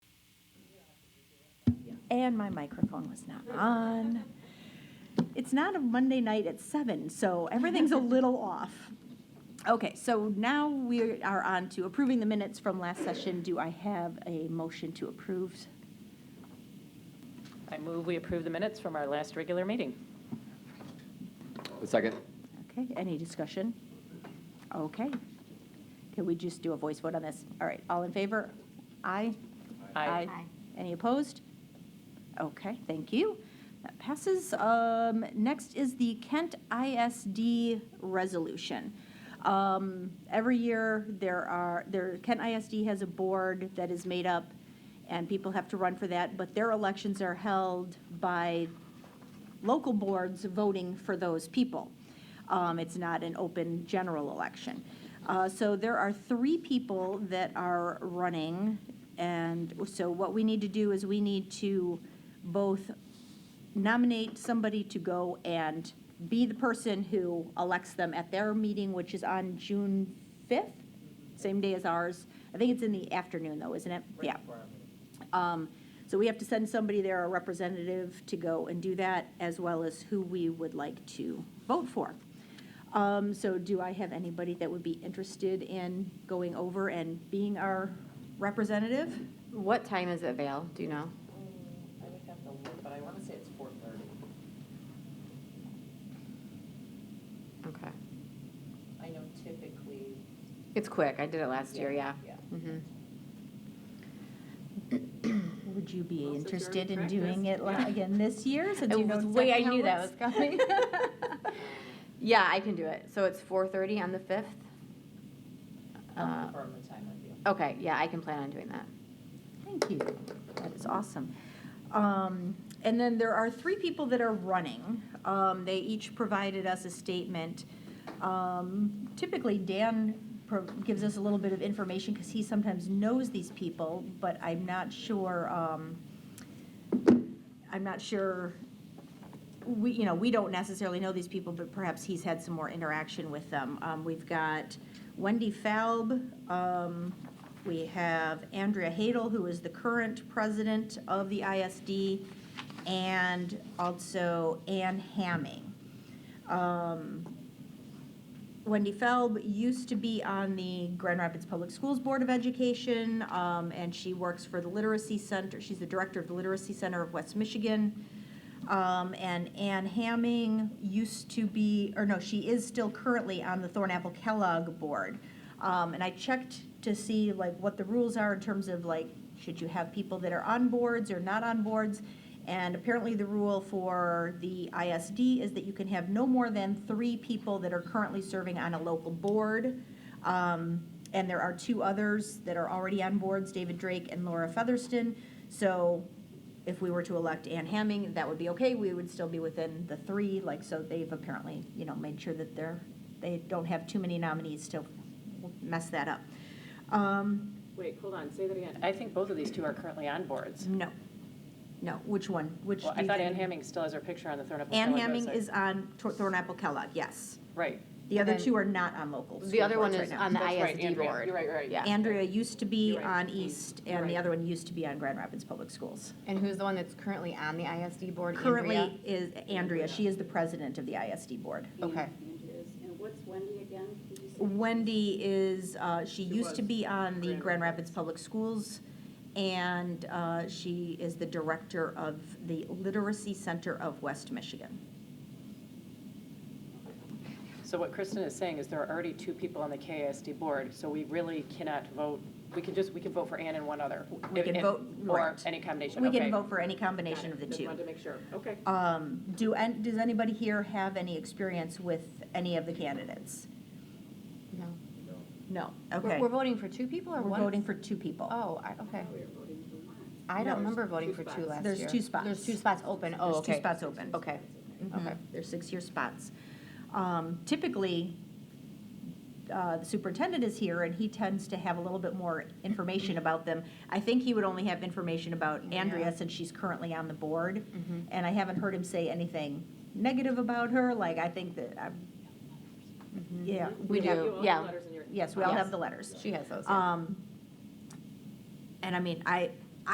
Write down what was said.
and my microphone was not on. It's not a Monday night at seven, so everything's a little off. Okay, so now we are on to approving the minutes from last session. Do I have a motion to approve? I move we approve the minutes from our last regular meeting. A second. Okay, any discussion? Okay. Can we just do a voice vote on this? All right, all in favor? Aye? Aye. Aye. Any opposed? Okay, thank you. That passes. Um, Next is the Kent ISD resolution. Um, Every year, there are, there, Kent ISD has a board that is made up, and people have to run for that, but their elections are held by local boards voting for those people. Um, It's not an open general election. Uh, So there are three people that are running, and so what we need to do is we need to both nominate somebody to go and be the person who elects them at their meeting, which is on June 5th, same day as ours. I think it's in the afternoon, though, isn't it? Yeah. Um, So we have to send somebody there, a representative, to go and do that, as well as who we would like to vote for. Um, So do I have anybody that would be interested in going over and being our representative? What time is it, Val? Do you know? I would have to look, but I want to say it's 4:30. Okay. I know typically. It's quick. I did it last year, yeah. Mhm. Would you be Well, since you're interested in in doing it la- practice. again this year, since you It know was- wait, exactly I knew how that it was coming. works? Yeah, I can do it. So it's 4:30 on the 5th? Uh, the time with you. Okay, yeah, I can plan on doing that. Thank you. That is awesome. Um, And then there are three people that are running. Um, They each provided us a statement. Um, Typically, Dan pro- gives us a little bit of information because he sometimes knows these people, but I'm not sure, um, I'm not sure, we, you know, we don't necessarily know these people, but perhaps he's had some more interaction with them. Um, We've got Wendy Falb, um, we have Andrea Hadel, who is the current president of the ISD, and also Ann Hamming. Um, Wendy Felb used to be on the Grand Rapids Public Schools Board of Education, um, and she works for the Literacy Center. She's the director of the Literacy Center of West Michigan. Um, and Ann Hamming used to be, or no, she is still currently on the Thornapple Kellogg Board. Um, and I checked to see like what the rules are in terms of like, should you have people that are on boards or not on boards? And apparently the rule for the ISD is that you can have no more than three people that are currently serving on a local board. Um, and there are two others that are already on boards, David Drake and Laura Featherston. So if we were to elect Ann Hamming, that would be okay. We would still be within the three, like, so they've apparently, you know, made sure that they're, they don't have too many nominees to mess that up. Um, Wait, hold on, say that again. I think both of these two are currently on boards. no, no, which one? Which? Well, do I you thought Ann think? Hamming still has her picture on the Thornapple. Ann Kellogg Hamming website. is on Tor- Thornapple Kellogg, yes. Right. The other And then- two are not on local. The school other one boards is right now. on the That's right, ISD Andrea. board. You're right, you're right. Yeah. Andrea used to be You're right. on East, and the Right. other one used to be on Grand Rapids Public Schools. And who's the one that's currently on the ISD board, Andrea? Currently is Andrea, she is the president of the ISD board. Okay. And what's Wendy again? Could you say- Wendy is, uh, she used to be on the Grand Rapids Public Schools, and uh, she is the director of the Literacy Center of West Michigan. So what Kristen is saying is there are already two people on the KISD board, so we really cannot vote, we can just, we can vote for Ann and one other. We can If- vote, Or right. any combination, We okay. can vote for any combination of the Just two. wanted to make sure, okay. Um, Do, an- does anybody here have any experience with any of the candidates? No. No. We're- Okay. We're voting for two people or We're one? voting for two people. Oh, I- okay. We are voting for one. I No, don't remember voting two for two spots. last year. There's two spots. There's two spots open, oh, There's okay. two spots open. Okay, okay. Mhm. They're six-year spots. Um, Typically, uh, the superintendent is here, and he tends to have a little bit more information about them. I think he would only have information about Andrea, Yeah. since she's currently on the board, Mhm. and I haven't heard him say anything negative about her, like, I think that, I'm- Mhm. yeah. We have do, you all the yeah. letters in your- Mm-hmm. Yes, we all Yes. have the letters. She has those. yeah. Um, and I mean, I,